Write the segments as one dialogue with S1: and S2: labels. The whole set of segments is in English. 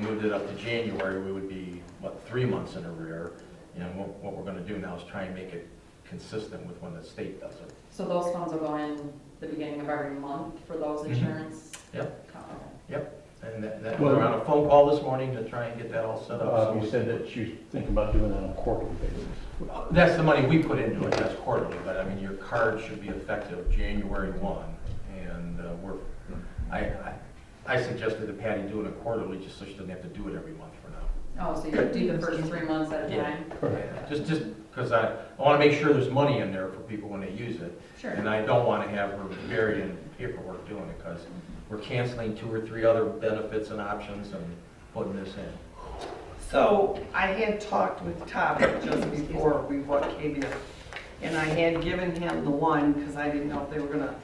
S1: moved it up to January, we would be, what, three months in arrear? And what, what we're gonna do now is try and make it consistent with when the state does it.
S2: So those funds will go in the beginning of every month for those
S1: Mhm.
S2: insurance?
S1: Yep.
S2: Okay.
S1: And that, that,
S3: Well-
S1: we're on a phone call this morning to try and get that all set up.
S3: Uh,
S1: so
S3: You
S1: we- uh,
S3: said that you think about doing that on a quarterly basis.
S1: That's the money we put into it, that's quarterly, but I mean, your card should be effective January one, and uh, we're, I, I- I suggested to Patty doing it quarterly, just so she doesn't have to do it every month for now.
S2: Oh, so you do the first three months at a
S1: Yeah.
S2: time?
S1: Just, just, because I, I want to make sure there's money in there for people when they use it,
S2: Sure.
S1: and I don't want to have her buried in paperwork doing it, because we're canceling two or three other benefits and options and putting this in.
S4: So I had talked with Todd just before we wa- came in, and I had given him the one, because I didn't know if they were gonna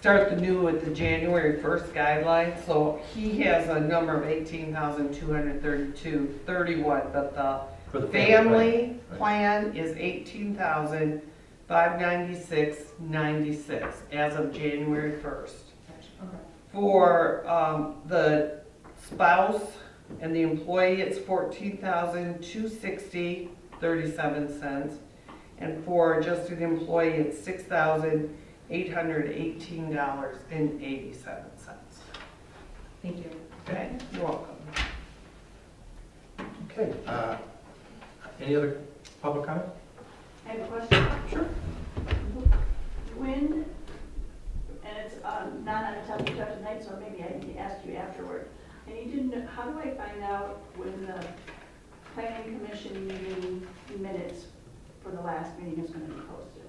S4: start the new with the January first guideline, so he has a number of eighteen thousand two hundred thirty-two, thirty-one, but the
S1: For the
S4: family
S1: plan.
S4: plan is eighteen thousand five ninety-six, ninety-six, as of January first
S2: Okay.
S4: for um, the spouse and the employee, it's fourteen thousand two sixty thirty-seven cents. And for just the employee, it's six thousand eight hundred eighteen dollars and eighty-seven cents.
S2: Thank you.
S4: Okay, you're welcome.
S1: Okay. uh, Any other public comment?
S5: I have a question.
S1: Sure.
S5: When, and it's um, not on the top of the top tonight, so maybe I need to ask you afterward. I need to know, how do I find out when the planning commission meeting minutes for the last meeting is gonna be posted?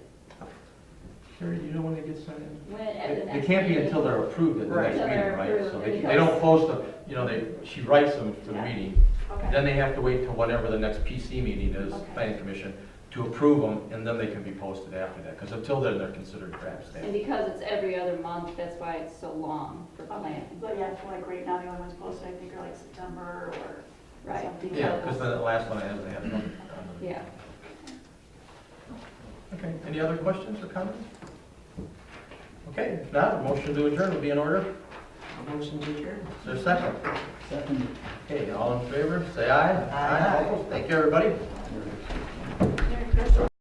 S1: Sherry, do you know when they get sent in?
S5: When, at the
S1: It
S5: next?
S1: it can't be
S5: meeting?
S1: until they're approved at the next
S5: Right.
S1: meeting,
S5: Until they're
S1: right? So they,
S5: approved,
S1: they don't post them, you know, they, she writes them for the
S5: Yeah.
S1: meeting. Then
S5: Okay,
S1: they have to wait till whatever the next PC meeting is,
S5: Okay.
S1: planning commission, to approve them, and then they can be posted after that. Because until then, they're considered draft
S6: And
S1: status.
S6: because it's every other month, that's why it's so long for
S5: okay,
S6: planning.
S5: but yeah, like right now, the only ones posted, I think, are like September or
S6: Right.
S5: something.
S1: Yeah, because the last one I had, they had it on. on the-
S6: Yeah.
S1: Okay, any other questions or comments? Okay, if not, motion to adjourn would be in order.
S4: Motion to adjourn.
S1: Is there a second?
S3: Second.
S1: Okay, all in favor, say aye.
S4: Aye.
S1: All opposed? Thank you, everybody.
S5: Merry Christmas.